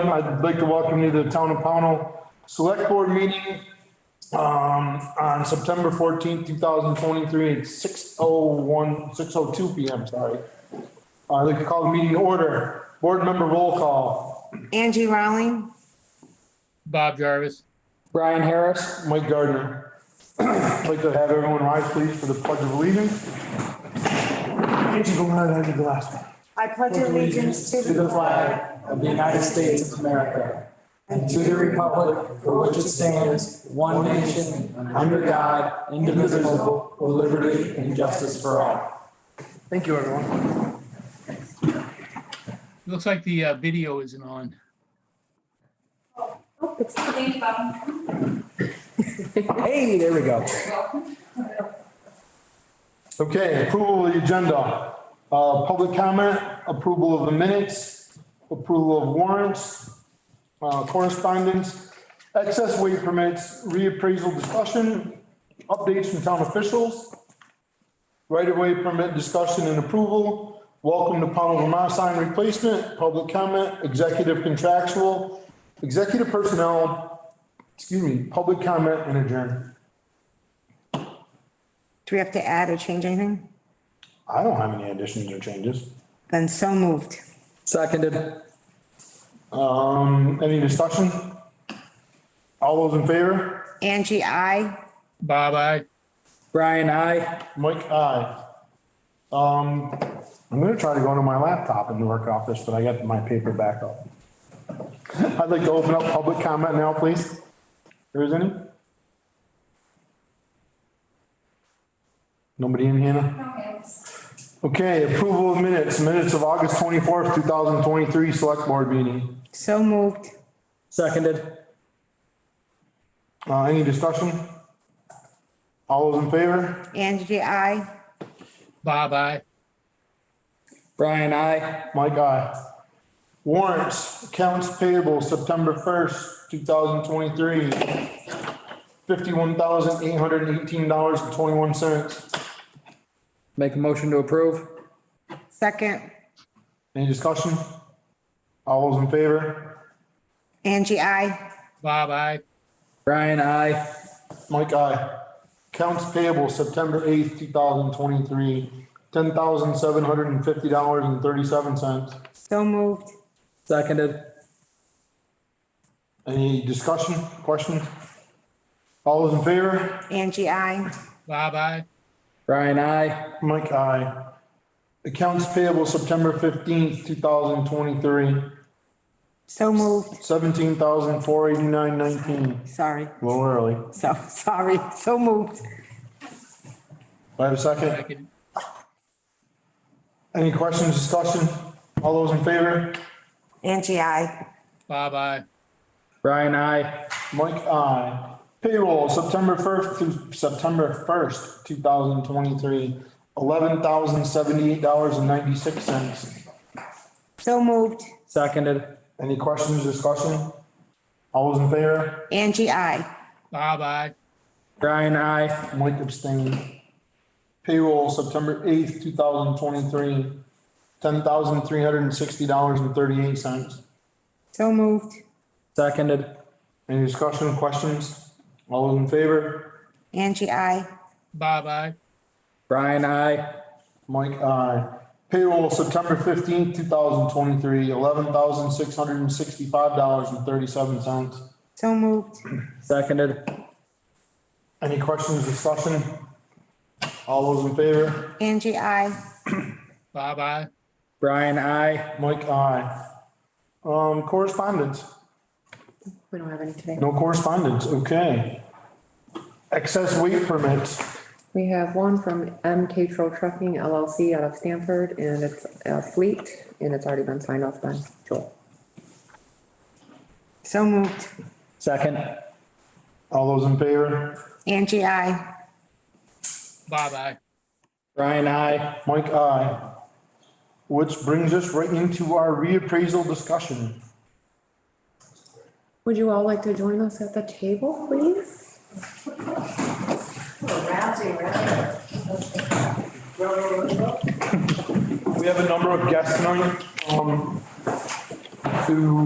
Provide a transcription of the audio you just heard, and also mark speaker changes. Speaker 1: time, I'd like to welcome you to the Town of Pownell Select Board Meeting um, on September fourteenth, two thousand twenty-three, at six oh one, six oh two P M, sorry. I'd like to call the meeting to order. Board member roll call.
Speaker 2: Angie Rowling,
Speaker 3: Bob Jarvis.
Speaker 1: Brian Harris. Mike Gardner. I'd like to have everyone rise, please, for the pledge of allegiance. Angie, go ahead, I did the last one.
Speaker 2: I pledge allegiance to
Speaker 4: To the flag of the United States of America and to the republic for which it stands, one nation, under God, indivisible, with liberty and justice for all.
Speaker 1: Thank you, everyone.
Speaker 3: Looks like the uh, video isn't on.
Speaker 5: Oh, it's Thank you, Bob.
Speaker 4: Hey, there we go.
Speaker 1: Okay, approval of the agenda, uh, public comment, approval of the minutes, approval of warrants, uh, correspondence, excess weight permits, reappraisal discussion, updates from town officials, right-of-way permit discussion and approval, welcome to Pownell, Vermont sign replacement, public comment, executive contractual, executive personnel, excuse me, public comment and adjourn.
Speaker 2: Do we have to add or change anything?
Speaker 1: I don't have any additions or changes.
Speaker 2: Then so moved.
Speaker 4: Seconded.
Speaker 1: Um, any discussion? All those in favor?
Speaker 2: Angie, I,
Speaker 3: Bob, I,
Speaker 4: Brian, I.
Speaker 1: Mike, aye. Um, I'm gonna try to go into my laptop and work off this, but I got my paper back up. I'd like to open up public comment now, please. If There is any? Nobody in, Hannah?
Speaker 5: Okay.
Speaker 1: Okay, approval of minutes, minutes of August twenty-fourth, two thousand twenty-three, select board meeting.
Speaker 2: so moved.
Speaker 4: Seconded.
Speaker 1: Uh, any discussion? All those in favor?
Speaker 2: Angie, I,
Speaker 3: Bob, I,
Speaker 4: Brian, I.
Speaker 1: Mike, aye. Warrants, accounts payable, September first, two thousand twenty-three. Fifty-one thousand eight hundred and eighteen dollars and twenty-one cents.
Speaker 4: Make a motion to approve.
Speaker 2: second.
Speaker 1: Any discussion? All those in favor?
Speaker 2: Angie, I,
Speaker 3: Bob, I,
Speaker 4: Brian, I.
Speaker 1: Mike, aye. Accounts payable, September eighth, two thousand twenty-three, ten thousand seven hundred and fifty dollars and thirty-seven cents.
Speaker 2: so moved.
Speaker 4: Seconded.
Speaker 1: Any discussion, questions? All those in favor?
Speaker 2: Angie, I,
Speaker 3: Bob, I,
Speaker 4: Brian, I.
Speaker 1: Mike, aye. Accounts payable September fifteenth, two thousand twenty-three,
Speaker 2: so moved.
Speaker 1: seventeen thousand four eighty-nine nineteen.
Speaker 2: Sorry,
Speaker 1: A little early. Do
Speaker 2: so, sorry, so moved.
Speaker 1: I have a second?
Speaker 3: second,
Speaker 1: Any questions, discussion? All those in favor?
Speaker 2: Angie, I,
Speaker 3: Bob, I,
Speaker 4: Brian, I.
Speaker 1: Mike, aye. Payroll September first through September first, two thousand twenty-three, eleven thousand seventy-eight dollars and ninety-six cents.
Speaker 2: so moved.
Speaker 4: Seconded.
Speaker 1: Any questions, discussion? All those in favor?
Speaker 2: Angie, I,
Speaker 3: Bob, I,
Speaker 4: Brian, I.
Speaker 1: Mike abstained. Payroll September eighth, two thousand twenty-three, ten thousand three hundred and sixty dollars and thirty-eight cents.
Speaker 2: so moved.
Speaker 4: Seconded.
Speaker 1: Any discussion, questions? All those in favor?
Speaker 2: Angie, I,
Speaker 3: Bob, I,
Speaker 4: Brian, I.
Speaker 1: Mike, aye. Payroll September fifteenth, two thousand twenty-three, eleven thousand six hundred and sixty-five dollars and thirty-seven cents.
Speaker 2: so moved.
Speaker 4: Seconded.
Speaker 1: Any questions, discussion? All those in favor?
Speaker 2: Angie, I,
Speaker 3: Bob, I,
Speaker 4: Brian, I.
Speaker 1: Mike, aye. Um, correspondence?
Speaker 2: we don't have any today.
Speaker 1: No correspondence, okay. Excess weight permits,
Speaker 6: We have one from MK Troll Trucking LLC out of Stanford, and it's a fleet, and it's already been signed off by Joel.
Speaker 2: So moved.
Speaker 4: Second.
Speaker 1: all those in favor?
Speaker 2: Angie, I,
Speaker 3: Bob, I,
Speaker 4: Brian, I.
Speaker 1: Mike, aye. Which brings us right into our reappraisal discussion.
Speaker 6: Would you all like to join us at the table, please?
Speaker 1: We have a number of guests tonight, um, who